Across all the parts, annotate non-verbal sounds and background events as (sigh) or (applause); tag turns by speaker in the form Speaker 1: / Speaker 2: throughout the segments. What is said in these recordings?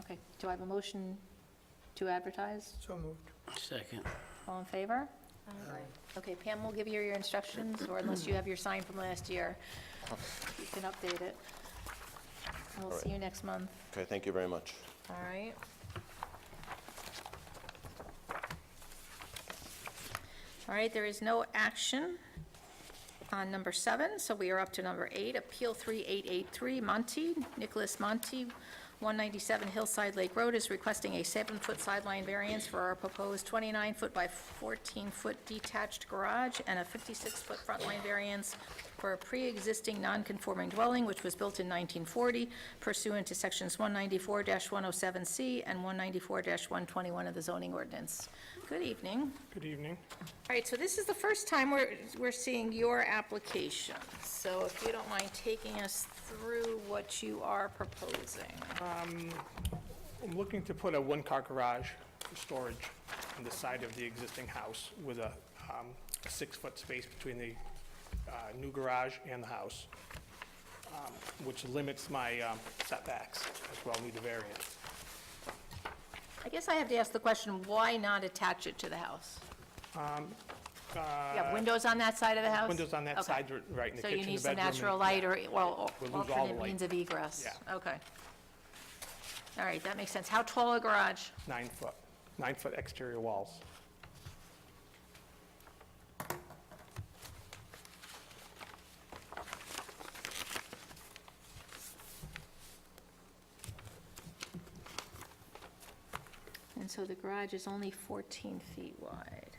Speaker 1: Okay, do I have a motion to advertise?
Speaker 2: So moved.
Speaker 3: Second.
Speaker 1: All in favor? Okay, Pam will give you your instructions, or unless you have your sign from last year, you can update it. We'll see you next month.
Speaker 4: Okay, thank you very much.
Speaker 1: All right. All right, there is no action on number seven, so we are up to number eight, Appeal 3883, Monte, Nicholas Monte, 197 Hillside Lake Road is requesting a seven-foot sideline variance for our proposed 29-foot by 14-foot detached garage and a 56-foot front line variance for a pre-existing non-conforming dwelling which was built in 1940 pursuant to Sections 194-107C and 194-121 of the zoning ordinance. Good evening.
Speaker 2: Good evening.
Speaker 1: All right, so this is the first time we're, we're seeing your application. So if you don't mind taking us through what you are proposing.
Speaker 2: I'm looking to put a one-car garage for storage on the side of the existing house with a um, six-foot space between the uh, new garage and the house, um, which limits my um, setbacks as well, need a variance.
Speaker 1: I guess I have to ask the question, why not attach it to the house? You have windows on that side of the house?
Speaker 2: Um, uh, Windows on that
Speaker 1: Okay.
Speaker 2: side, r- right in the
Speaker 1: So
Speaker 2: kitchen,
Speaker 1: you
Speaker 2: the
Speaker 1: need some
Speaker 2: bedroom, and-
Speaker 1: natural light or, well,
Speaker 2: We'll lose all the
Speaker 1: alternate
Speaker 2: light.
Speaker 1: means of egress?
Speaker 2: Yeah.
Speaker 1: Okay. All right, that makes sense. How tall a garage?
Speaker 2: Nine-foot, nine-foot exterior walls.
Speaker 1: And so the garage is only 14 feet wide.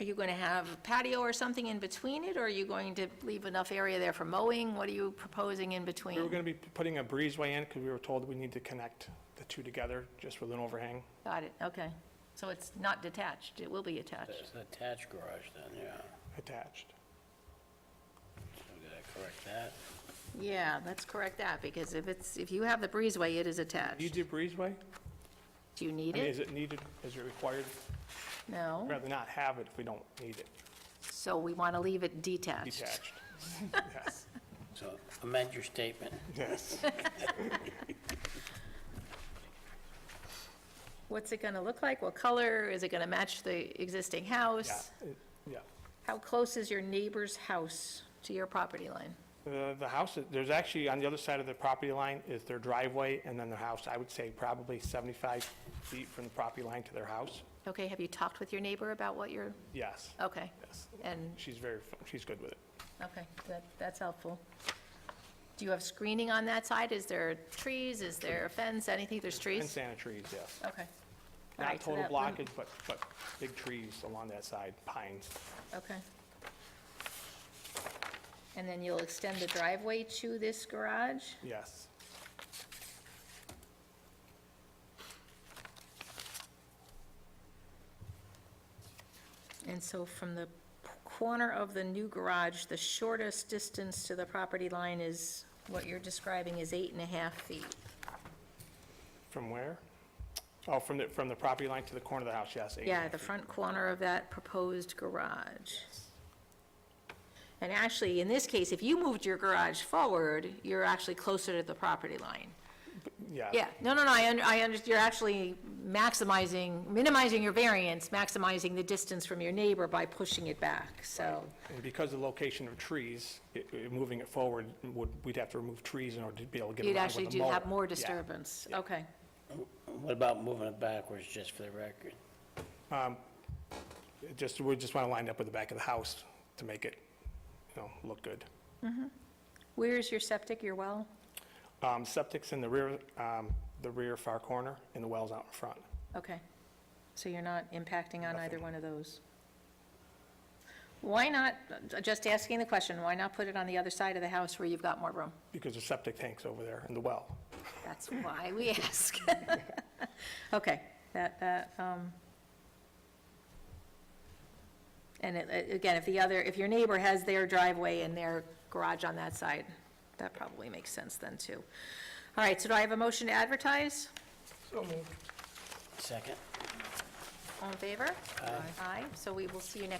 Speaker 1: Are you going to have a patio or something in between it, or are you going to leave enough area there for mowing? What are you proposing in between?
Speaker 2: We were going to be putting a breezeway in because we were told we need to connect the two together just with an overhang.
Speaker 1: Got it, okay. So it's not detached, it will be attached.
Speaker 3: That's an attached garage then, yeah.
Speaker 2: attached.
Speaker 3: So we gotta correct that.
Speaker 1: Yeah, let's correct that, because if it's, if you have the breezeway, it is
Speaker 2: Needs
Speaker 1: attached.
Speaker 2: a breezeway?
Speaker 1: Do you
Speaker 2: I
Speaker 1: need
Speaker 2: mean, is
Speaker 1: it?
Speaker 2: it needed, is it required? I'd
Speaker 1: No,
Speaker 2: rather not have it if we don't need it
Speaker 1: so we want to leave it detached. (laughs)
Speaker 2: detached. Yes,
Speaker 3: So amend your statement.
Speaker 2: yes.
Speaker 1: What's it going to look like? What color? Is it going to match the existing
Speaker 2: Yeah,
Speaker 1: house?
Speaker 2: it- yeah.
Speaker 1: How close is your neighbor's house to your property line?
Speaker 2: The, the house, is- there's actually, on the other side of the property line is their driveway and then their house. I would say probably 75 feet from the property line to their house.
Speaker 1: Okay, have you talked with your neighbor about what you're,
Speaker 2: Yes,
Speaker 1: okay,
Speaker 2: yes.
Speaker 1: and,
Speaker 2: She's very, she's good with it.
Speaker 1: okay, that, that's helpful. Do you have screening on that side? Is there trees? Is there a fence? Anything? There's
Speaker 2: And
Speaker 1: trees?
Speaker 2: sanitaries, yes.
Speaker 1: Okay. All
Speaker 2: Not
Speaker 1: right, so
Speaker 2: total
Speaker 1: that lim-
Speaker 2: blockage, but, but big trees along that side, pines.
Speaker 1: Okay. And then you'll extend the driveway to this garage?
Speaker 2: Yes,
Speaker 1: And so from the p- corner of the new garage, the shortest distance to the property line is, what you're describing is eight and a half feet.
Speaker 2: from where? Oh, from the, from the property line to the corner of the house, yes. eight and a
Speaker 1: Yeah,
Speaker 2: half
Speaker 1: the
Speaker 2: feet.
Speaker 1: front corner of that proposed garage. And actually, in this case, if you moved your garage forward, you're actually closer to the property line.
Speaker 2: Yeah.
Speaker 1: Yeah, no, no, no, I, un- I understand, you're actually maximizing, minimizing your variance, maximizing the distance from your neighbor by pushing it back, so.
Speaker 2: And because of the location of trees, it- it- moving it forward, would, we'd have to remove trees in order to be able to get around
Speaker 1: You'd
Speaker 2: with
Speaker 1: actually
Speaker 2: the
Speaker 1: do have
Speaker 2: mower.
Speaker 1: more
Speaker 2: Yeah.
Speaker 1: disturbance, okay.
Speaker 3: What about moving it backwards, just for the record?
Speaker 2: It Just, we just want to line it up with the back of the house to make it, you know, look good.
Speaker 1: Where's your septic, your well?
Speaker 2: Um, Septic's in the rear, um, the rear far corner, and the well's out in front.
Speaker 1: Okay, so you're not impacting on either one of those. Why not, just asking the question, why not put it on the other side of the house where you've got more room?
Speaker 2: Because the septic tank's over there and the well.
Speaker 1: That's why we (laughs) ask. Okay, that, that, um, and it- it- again, if the other, if your neighbor has their driveway and their garage on that side, that probably makes sense then, too. All right, so do I have a motion to advertise?
Speaker 3: Second?
Speaker 1: All in favor? Aye. Aye, so we will see you next